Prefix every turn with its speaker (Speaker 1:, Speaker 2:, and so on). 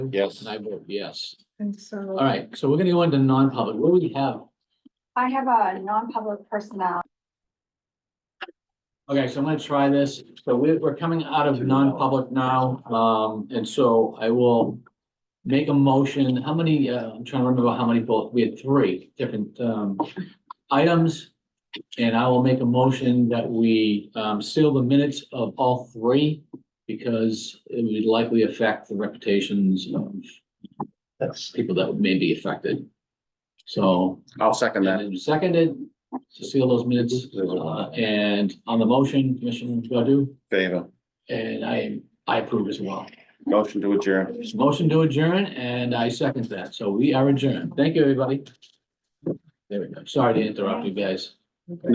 Speaker 1: Yes.
Speaker 2: And I vote yes.
Speaker 3: And so.
Speaker 2: All right, so we're gonna go into non-public. What do we have?
Speaker 4: I have a non-public personnel.
Speaker 2: Okay, so I'm gonna try this. So we're, we're coming out of non-public now, um, and so I will make a motion. How many, uh, I'm trying to remember how many both, we had three different, um, items. And I will make a motion that we, um, seal the minutes of all three because it would likely affect the reputations of people that may be affected. So
Speaker 1: I'll second that.
Speaker 2: and then seconded, to seal those minutes, uh, and on the motion, Commissioner Godu,
Speaker 1: Favor.
Speaker 2: and I, I approve as well.
Speaker 1: Motion to adjourn.
Speaker 2: It's motion to adjourn, and I second that, so we are adjourned. Thank you, everybody. There we go. Sorry to interrupt you guys.